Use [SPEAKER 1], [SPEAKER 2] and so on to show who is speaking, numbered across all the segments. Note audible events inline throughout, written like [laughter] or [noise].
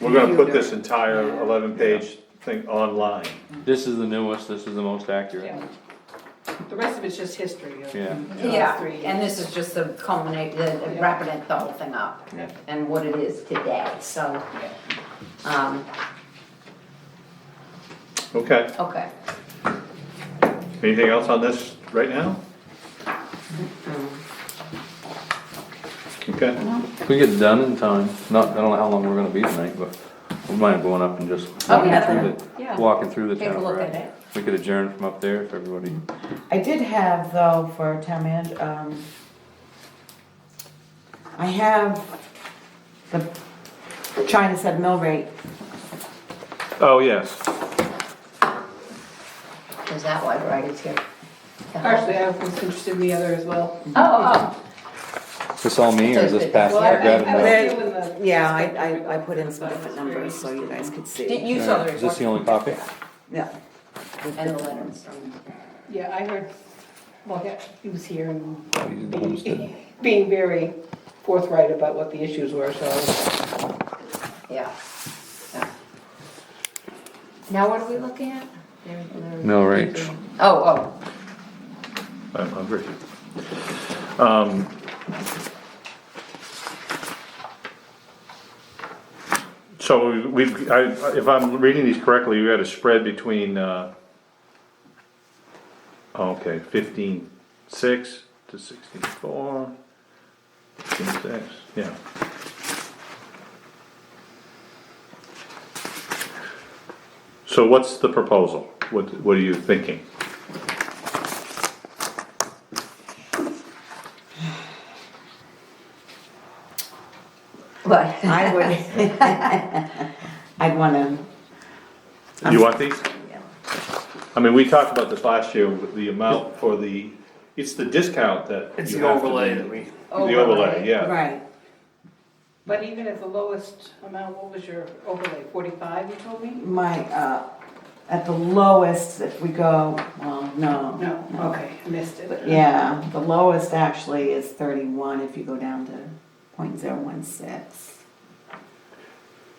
[SPEAKER 1] We're gonna put this entire eleven page thing online.
[SPEAKER 2] This is the newest, this is the most accurate.
[SPEAKER 3] Yeah. The rest of it's just history of.
[SPEAKER 2] Yeah.
[SPEAKER 4] Yeah, and this is just the culminate, the the wrapping it, the whole thing up,
[SPEAKER 2] Yeah.
[SPEAKER 4] and what it is today, so, um,
[SPEAKER 1] Okay,
[SPEAKER 4] okay.
[SPEAKER 1] anything else on this right now? Okay,
[SPEAKER 2] If we get done in time, not, I don't know how long we're gonna be tonight, but we might have gone up and just
[SPEAKER 4] Oh,
[SPEAKER 2] walking
[SPEAKER 4] yeah,
[SPEAKER 2] through
[SPEAKER 4] yeah.
[SPEAKER 2] the, walking through the
[SPEAKER 4] Take a
[SPEAKER 2] town.
[SPEAKER 4] look
[SPEAKER 2] right?
[SPEAKER 4] at it.
[SPEAKER 2] We could adjourn from up there if everybody,
[SPEAKER 5] I did have though for town manager, um, I have the China said mill rate.
[SPEAKER 2] oh, yes.
[SPEAKER 4] Is that why Bridie's here?
[SPEAKER 3] Actually, I was interested in the other as well.
[SPEAKER 4] Oh, oh,
[SPEAKER 2] Is this all me or is this past?
[SPEAKER 3] Well,
[SPEAKER 2] I grabbed
[SPEAKER 3] I- I
[SPEAKER 2] another-
[SPEAKER 3] was doing the.
[SPEAKER 5] Yeah, I, I, I put in some different numbers so you guys could
[SPEAKER 4] did
[SPEAKER 5] see.
[SPEAKER 4] you saw the
[SPEAKER 2] Is
[SPEAKER 4] report?
[SPEAKER 2] this the only copy?
[SPEAKER 5] Yeah.
[SPEAKER 4] And the letters.
[SPEAKER 3] Yeah, I heard, well, yeah, he was here and
[SPEAKER 2] He's the homestead.
[SPEAKER 3] [laughs] being very forthright about what the issues were, so.
[SPEAKER 4] yeah. yeah. Now what are we looking at? There- there-
[SPEAKER 2] [laughs] Mill rate.
[SPEAKER 4] Oh, oh,
[SPEAKER 1] I'm hungry. Um, So we've, I, if I'm reading these correctly, we had a spread between, uh, oh, okay, fifteen six to sixteen four. Fifteen six, yeah. So what's the proposal? What, what are you thinking?
[SPEAKER 4] but,
[SPEAKER 5] I would, [laughs] I'd wanna,
[SPEAKER 1] Do
[SPEAKER 6] Um,
[SPEAKER 1] you want these? I mean, we talked about this last year, with the amount for the, it's the discount that.
[SPEAKER 6] It's
[SPEAKER 1] you
[SPEAKER 6] the
[SPEAKER 1] have to
[SPEAKER 6] overlay
[SPEAKER 1] do.
[SPEAKER 6] that we,
[SPEAKER 1] The overlay, yeah.
[SPEAKER 5] right,
[SPEAKER 3] But even at the lowest amount, what was your overlay, forty-five, you told me?
[SPEAKER 5] my, uh, at the lowest, if we go, well, no.
[SPEAKER 3] No, okay, I missed it.
[SPEAKER 5] Yeah, the lowest actually is thirty-one if you go down to point zero one six.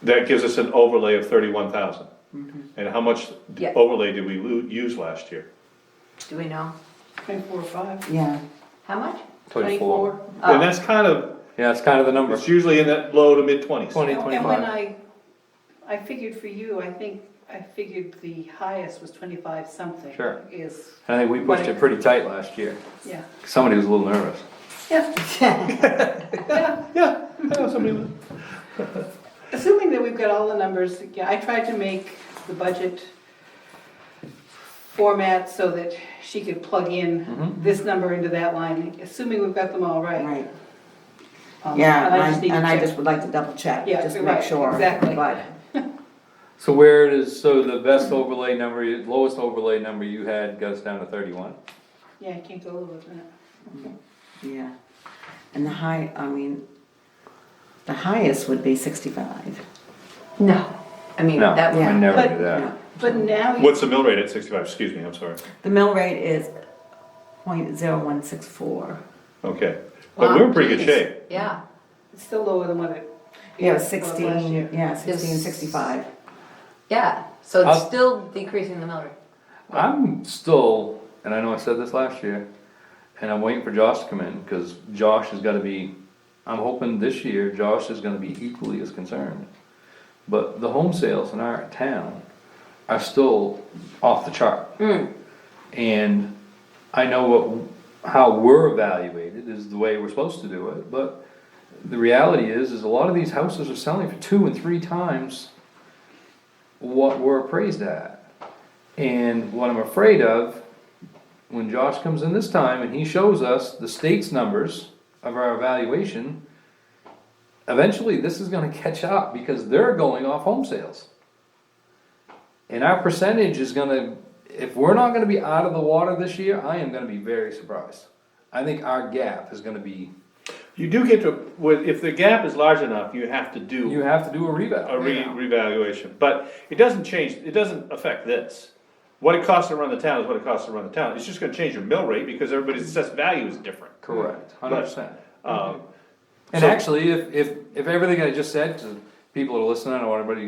[SPEAKER 1] That gives us an overlay of thirty-one thousand.
[SPEAKER 6] Mm-hmm.
[SPEAKER 1] And how much
[SPEAKER 4] Yeah.
[SPEAKER 1] overlay did we lo- use last year?
[SPEAKER 4] do we know?
[SPEAKER 3] Twenty-four, five.
[SPEAKER 5] Yeah. [laughs]
[SPEAKER 4] How much?
[SPEAKER 2] Twenty-four.
[SPEAKER 4] Oh.
[SPEAKER 1] And that's kind of,
[SPEAKER 2] Yeah, that's kind of the number.
[SPEAKER 1] it's usually in that low to mid twenties.
[SPEAKER 2] Twenty,
[SPEAKER 3] And when
[SPEAKER 2] twenty-five.
[SPEAKER 3] I, I figured for you, I think, I figured the highest was twenty-five something.
[SPEAKER 2] Sure.
[SPEAKER 3] Is,
[SPEAKER 2] I think we pushed it pretty tight last year.
[SPEAKER 3] yeah.
[SPEAKER 2] Somebody was a little nervous.
[SPEAKER 3] Yeah,
[SPEAKER 1] Yeah, I know somebody, that-
[SPEAKER 3] assuming that we've got all the numbers, yeah, I tried to make the budget format so that she could plug in this number into that line, assuming we've got them all right.
[SPEAKER 5] Right,
[SPEAKER 3] Um,
[SPEAKER 5] yeah, and I,
[SPEAKER 3] need to
[SPEAKER 5] and I
[SPEAKER 3] check.
[SPEAKER 5] just would like to double check,
[SPEAKER 3] Yeah,
[SPEAKER 5] just to
[SPEAKER 3] you're
[SPEAKER 5] make
[SPEAKER 3] right,
[SPEAKER 5] sure.
[SPEAKER 3] exactly.
[SPEAKER 5] But,
[SPEAKER 2] So where does, so the best overlay number, lowest overlay number you had goes down to thirty-one?
[SPEAKER 3] Yeah, I can't go over that.
[SPEAKER 5] yeah, and the high, I mean, the highest would be sixty-five.
[SPEAKER 4] No, I mean,
[SPEAKER 2] No,
[SPEAKER 4] that
[SPEAKER 2] I
[SPEAKER 4] would,
[SPEAKER 2] never do
[SPEAKER 3] But-
[SPEAKER 2] that.
[SPEAKER 3] But now, you-
[SPEAKER 1] what's the mill rate at sixty-five, excuse me, I'm sorry.
[SPEAKER 5] The mill rate is point zero one six four.
[SPEAKER 1] Okay, but we were in pretty good
[SPEAKER 4] Wow,
[SPEAKER 1] shape.
[SPEAKER 4] yeah,
[SPEAKER 3] it's still lower than what it.
[SPEAKER 5] Yeah,
[SPEAKER 3] was last
[SPEAKER 5] sixteen,
[SPEAKER 3] year.
[SPEAKER 5] yeah, sixteen
[SPEAKER 4] Is-
[SPEAKER 5] sixty-five.
[SPEAKER 4] yeah, so it's
[SPEAKER 2] I'll-
[SPEAKER 4] still decreasing the mill rate.
[SPEAKER 2] I'm still, and I know I said this last year, and I'm waiting for Josh to come in, cause Josh has gotta be, I'm hoping this year Josh is gonna be equally as concerned. But the home sales in our town are still off the chart. And I know what, how we're evaluated is the way we're supposed to do it, but the reality is, is a lot of these houses are selling for two and three times what we're appraised at. And what I'm afraid of, when Josh comes in this time and he shows us the state's numbers of our evaluation, eventually this is gonna catch up because they're going off home sales. And our percentage is gonna, if we're not gonna be out of the water this year, I am gonna be very surprised. I think our gap is gonna be,
[SPEAKER 1] You do get to, well, if the gap is large enough, you have to do.
[SPEAKER 2] you have to do a revow.
[SPEAKER 1] a re- revaluation, but it doesn't change, it doesn't affect this. What it costs to run the town is what it costs to run the town, it's just gonna change your mill rate because everybody's assessed value is different.
[SPEAKER 2] Correct, hundred percent.
[SPEAKER 1] Um,
[SPEAKER 2] And
[SPEAKER 1] So-
[SPEAKER 2] actually, if, if, if everything I just said, 'cause people that are listening, I want everybody to